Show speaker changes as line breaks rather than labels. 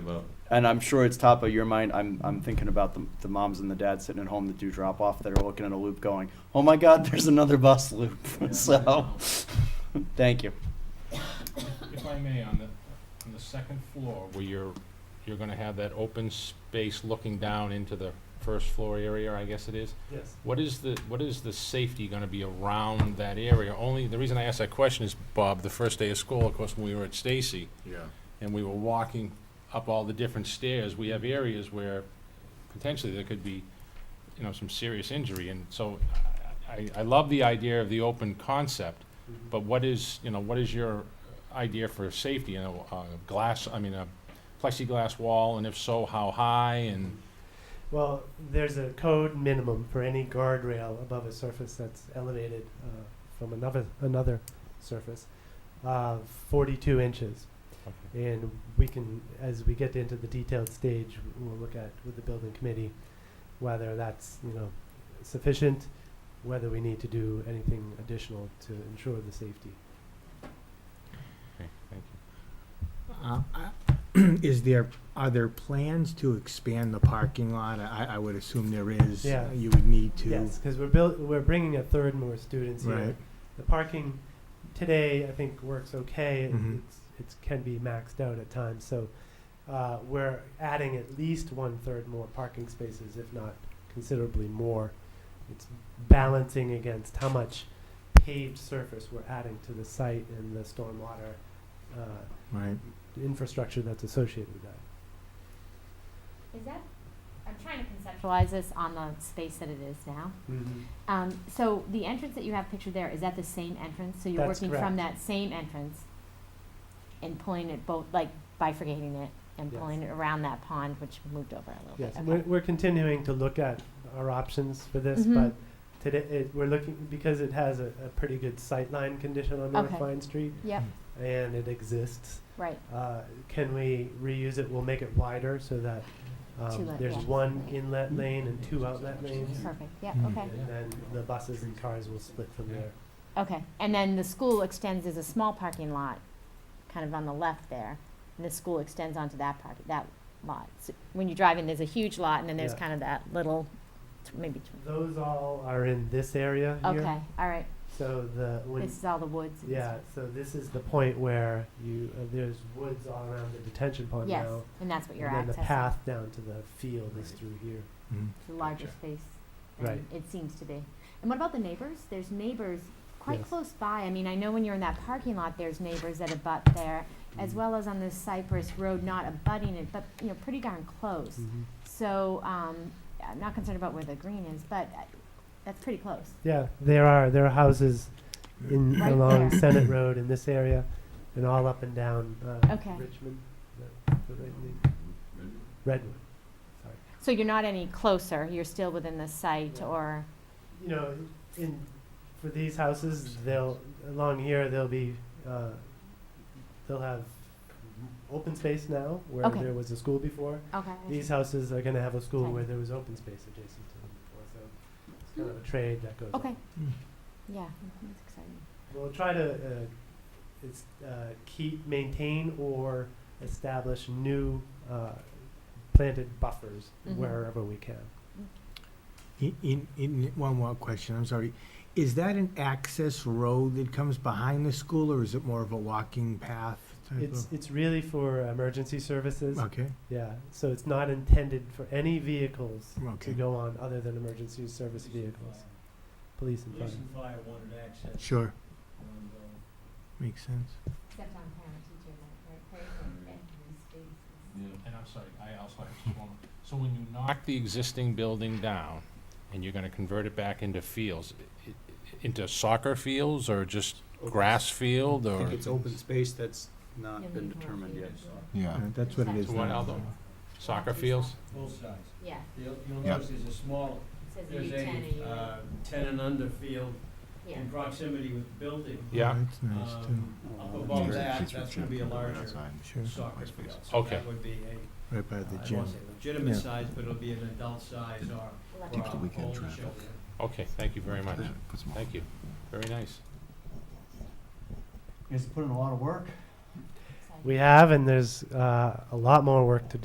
about.
And I'm sure it's top of your mind. I'm, I'm thinking about the, the moms and the dads sitting at home that do drop off that are looking at a loop going, oh my God, there's another bus loop. so, thank you.
If I may, on the, on the second floor, where you're, you're gonna have that open space looking down into the first floor area, I guess it is,
Yes.
what is the, what is the safety gonna be around that area? Only, the reason I asked that question is, Bob, the first day of school, of course, when we were at Stacy,
Yeah.
and we were walking up all the different stairs, we have areas where potentially there could be, you know, some serious injury, and so I, I love the idea of the open concept, but what is, you know, what is your idea for safety, you know, uh, glass, I mean, a plexiglass wall, and if so, how high, and,
Well, there's a code minimum for any guardrail above a surface that's elevated uh, from another another surface, uh, 42 inches. And we can, as we get into the detailed stage, we'll look at with the building committee whether that's you know sufficient, whether we need to do anything additional to ensure the safety.
okay, thank you.
Uh, I- Is there, are there plans to expand the parking lot? I, I would assume there is.
Yeah.
You would need to.
Yes, because we're built, we're bringing a third more students here.
Right.
The parking today, I think, works okay. It-
Mhm.
It's, it's can be maxed out at times, so, uh, we're adding at least one-third more parking spaces, if not considerably more. It's balancing against how much paved surface we're adding to the site and the stormwater, uh,
Right.
infrastructure that's associated with that.
Is that, I'm trying to conceptualize this on the space that it is now.
Mm-hmm.
Um, so the entrance that you have pictured there, is that the same entrance? So you're
That's
working from that same entrance and pulling it both, like bifurcating it and
Yes.
pulling it around that pond, which moved over a little
Yes,
bit.
we're,
Okay.
we're continuing to look at our options for this,
Mhm.
but today, it, we're looking, because it has a, a pretty good sightline condition on North
Okay.
Vine Street,
Yep,
and it exists,
right.
uh, can we reuse it, we'll make it wider so that,
Two
um,
let-
there's
yeah.
one inlet lane and two outlet lanes,
Perfect. Yep,
Hmm.
Mm.
okay.
and then the buses and cars will split from there.
Okay. And then the school extends, there's a small parking lot kind of on the left there. And the school extends onto that park, that lot. So when you drive in, there's a huge lot and then there's
Yeah.
kind of that little, tw- maybe tw-
Those all are in this area here,
Okay, all right.
so the, when,
This is all the woods. and
yeah,
stuff.
so this is the point where you, uh, there's woods all around the detention pond now.
Yes, and that's what you're
and then the
accessing,
path down to the field is
Right.
through here.
Mm.
the larger
Gotcha.
space.
Right.
than It seems to be. And what about the neighbors? There's neighbors quite
Yes.
close by. I mean, I know when you're in that parking lot, there's neighbors that abut there,
Mm-hmm.
as well as on this Cypress Road, not abutting it, but, you know, pretty darn close.
Mm. Mm-hmm.
So, um, I'm not concerned about where the green is, but uh, that's pretty close.
Yeah, there are there are houses in
Right
along
there.
Senate Road in this area, and all up and down uh,
Okay.
Richmond, the, the right name? Redwood. Sorry.
So you're not any closer, you're still within the site
Yeah.
or,
You know, in for these houses, they'll along here they'll be uh, they'll have open space now where
Okay.
there was a school before.
okay. I
These
see.
houses are going to have a school
Right.
where there was open space adjacent to them before, so it's kind of a trade that goes on.
Okay, yeah, Mm-hmm. that's exciting.
We'll try to uh, it's, uh, keep, maintain, or establish new uh, planted buffers
Mhm.
wherever we can.
In- In, in, one more question, I'm sorry. Is that an access road that comes behind the school or is it more of a walking path? type
It's
of-
it's really for emergency services.
Okay,
Yeah, so it's not intended for any vehicles to
okay,
go on other than emergency service vehicles, police and fire.
Police and fire wanted access.
sure,
and,
makes sense.
Except on parent teacher night, right,
and- and uh, yeah.
And I'm sorry, I also have just one, more. so when you knock the existing building down, and you're gonna convert it back into fields, i- i- into soccer fields, or just grass field, or?
I think it's open space that's not been
You'll need more
determined yet.
people.
Yeah. That's what it is.
So what,
now.
Aldo? Soccer fields?
Both sides.
Yeah,
You'll, you'll notice there's a small,
it says
there's
U ten
a, uh, ten and under field
yeah.
in proximity with the building.
Yeah.
That's nice
Um,
too,
Up
Oh,
above
that's
that, that's gonna be a larger
sure,
soccer field. So
Okay.
That would be
right by
a, uh,
the
I
gym.
won't say legitimate
Yeah.
size, but it'll be an adult size or,
Eleven.
or older children.
Okay, thank you very much. Thank you. Very nice.
You guys put in a lot of work.
Exciting.
We have, and there's uh, a lot more work to do.